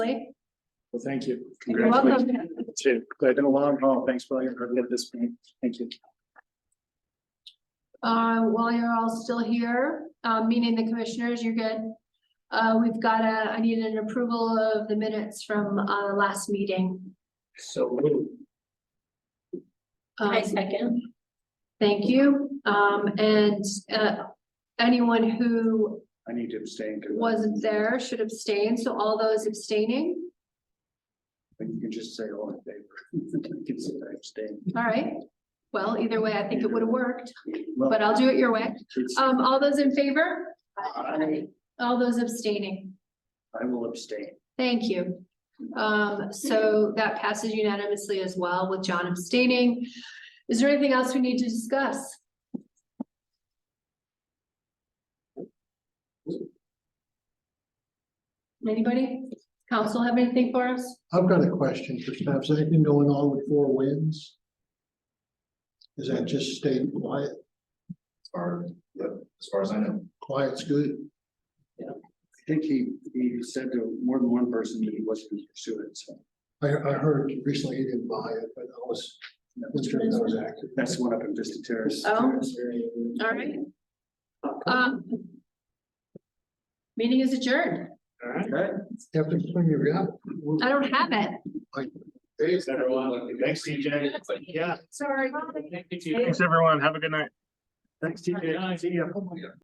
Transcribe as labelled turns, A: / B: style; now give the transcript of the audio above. A: Blake?
B: Well, thank you.
A: You're welcome.
B: Congratulations. Too. Glad been a long haul. Thanks for all your hard work this point. Thank you.
A: Uh, while you're all still here, uh, meeting the commissioners, you're good. Uh, we've got a, I need an approval of the minutes from, uh, last meeting.
B: So.
A: Um,
C: second.
A: Thank you. Um, and, uh, anyone who
B: I need to abstain. 'cause
A: wasn't there should abstain, so all those abstaining,
B: I think You can just say all in favor. You can say I abstain.
A: all right? Well, either way, I think it would have worked,
B: Well,
A: but I'll do it your way.
B: it's-
A: Um, all those in favor,
B: I
A: all those abstaining?
B: I will abstain.
A: Thank you. Um, so that passes unanimously as well with John abstaining. Is there anything else we need to discuss? Anybody? Council have anything for us?
D: I've got a question for staff. Is anything going on with Four Winds? Is that just staying quiet?
E: Or, yep, as far as I know.
D: Quiet's good.
B: I think he, he said to more than one person that he wasn't going to pursue it, so.
D: I, I heard recently he didn't buy it, but I was, I was sure that was active.
B: That's the one up in Vista Terrace.
A: Oh. All right. Um. Meeting is adjourned.
B: All right.
D: You have to clean your app.
A: I don't have it.
B: Thanks, everyone. Thanks, TJ. Yeah.
A: Sorry.
D: oh
B: Thanks, everyone. Have a good night. Thanks, TJ. See ya.